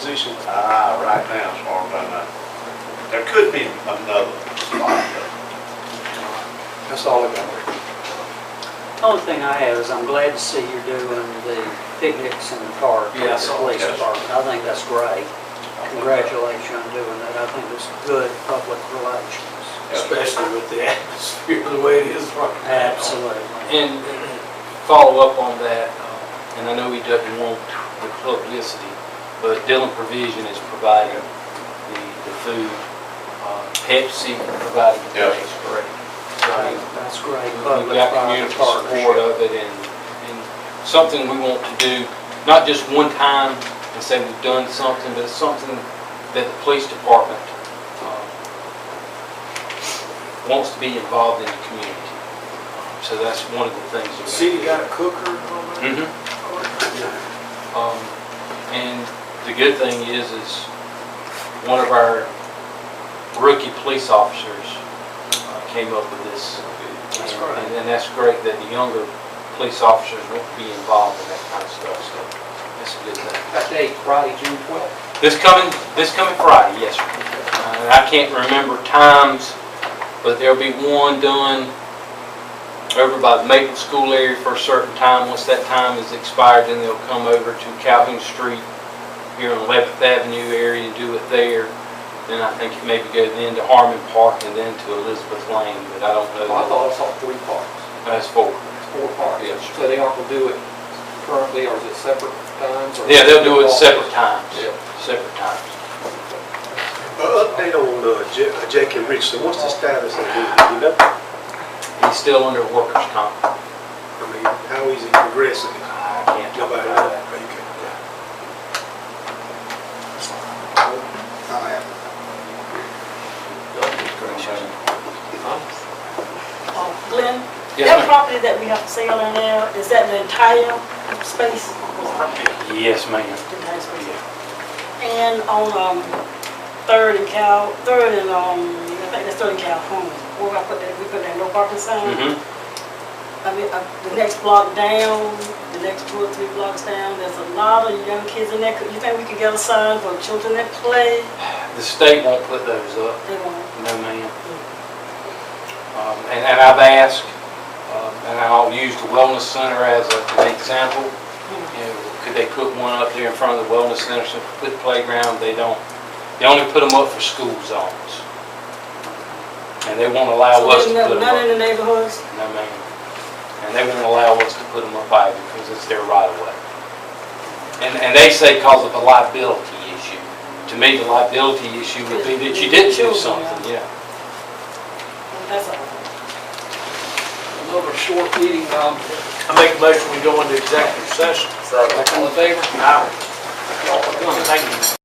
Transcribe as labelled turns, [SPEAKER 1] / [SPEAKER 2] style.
[SPEAKER 1] position?
[SPEAKER 2] Ah, right now, as far as I know. There could be another spot, but
[SPEAKER 1] That's all I got.
[SPEAKER 3] Only thing I have is I'm glad to see you're doing the picnics in the park. with
[SPEAKER 1] Yeah, I
[SPEAKER 3] the
[SPEAKER 1] saw
[SPEAKER 3] Police
[SPEAKER 2] that.
[SPEAKER 3] department. I think that's great.
[SPEAKER 2] I think-
[SPEAKER 3] Congratulations on doing that. I think it's good public relations.
[SPEAKER 4] especially with the atmosphere, the way it is right now.
[SPEAKER 3] Absolutely.
[SPEAKER 5] And and follow up on that, uh, and I know he doesn't want the publicity, but Dillon Provision is providing the, the food. Uh, Pepsi providing the
[SPEAKER 2] Yeah.
[SPEAKER 5] drinks, correct? So I mean,
[SPEAKER 3] That's great
[SPEAKER 5] we
[SPEAKER 3] public
[SPEAKER 5] got
[SPEAKER 3] private
[SPEAKER 5] community support
[SPEAKER 3] partnership.
[SPEAKER 5] of it and, and something we want to do, not just one time and say we've done something, but something that the police department um, wants to be involved in the community. So that's one of the things. that we-
[SPEAKER 4] City got a cooker and all that?
[SPEAKER 5] Mhm. Um, And the good thing is, is one of our rookie police officers uh, came up with this.
[SPEAKER 3] That's
[SPEAKER 5] And-
[SPEAKER 3] great.
[SPEAKER 5] And and that's great that the younger police officers won't be involved in that kind of stuff, so that's a good thing.
[SPEAKER 3] That date, Friday, June 12th.
[SPEAKER 5] This coming, this coming Friday, yes, sir. Uh, I can't remember times, but there'll be one done over by the Maple School area for a certain time. Once that time is expired, then they'll come over to Calhoun Street here on 11th Avenue area and do it there. Then I think it maybe go then to Harmon Park and then to Elizabeth Lane, but I don't
[SPEAKER 1] Well, I
[SPEAKER 5] know.
[SPEAKER 1] thought I saw three parks,
[SPEAKER 5] That's four.
[SPEAKER 1] four parks.
[SPEAKER 5] Yes, sir.
[SPEAKER 1] So they aren't gonna do it currently, or is it separate times? or-
[SPEAKER 5] Yeah, they'll do it separate times,
[SPEAKER 1] Yeah.
[SPEAKER 5] separate times.
[SPEAKER 6] Update on uh, Ja- uh, Jackie Richardson, what's the status of him, you know?
[SPEAKER 5] He's still under workers' comp.
[SPEAKER 6] I mean, how is he progressing?
[SPEAKER 5] I can't talk
[SPEAKER 6] Nobody
[SPEAKER 5] about
[SPEAKER 6] knows.
[SPEAKER 5] that.
[SPEAKER 7] Um, Glenn,
[SPEAKER 5] Yes,
[SPEAKER 7] that
[SPEAKER 5] ma'am.
[SPEAKER 7] property that we have to sale in there, is that the entire space?
[SPEAKER 5] Yes, ma'am.
[SPEAKER 7] Entire space. And on, um, Third and Cal, Third and, um, I think that's Third and Calhoun, where I put that, we put that no parking sign.
[SPEAKER 5] Mhm.
[SPEAKER 7] I mean, uh, the next block down, the next two or three blocks down, there's a lot of young kids in there. Could- You think we could get a sign for children that play?
[SPEAKER 5] The state won't put those up,
[SPEAKER 7] They won't.
[SPEAKER 5] no ma'am. Um, And and I've asked, um, and I'll use the wellness center as a- an example. You know, Could they put one up there in front of the wellness center, so put playground, they don't. They only put them up for school zones. And they won't allow us
[SPEAKER 7] So
[SPEAKER 5] to
[SPEAKER 7] there's
[SPEAKER 5] put them
[SPEAKER 7] none in
[SPEAKER 5] up.
[SPEAKER 7] the neighborhoods?
[SPEAKER 5] No ma'am. And they won't allow us to put them up either because it's their right of way. And, and they say because of a liability issue. To me, the liability issue would be that you didn't do something, yeah.
[SPEAKER 7] That's all.
[SPEAKER 4] Another short meeting, um, I make a motion, we go into executive session.
[SPEAKER 1] Second.
[SPEAKER 4] All in favor? Aye. Thank you.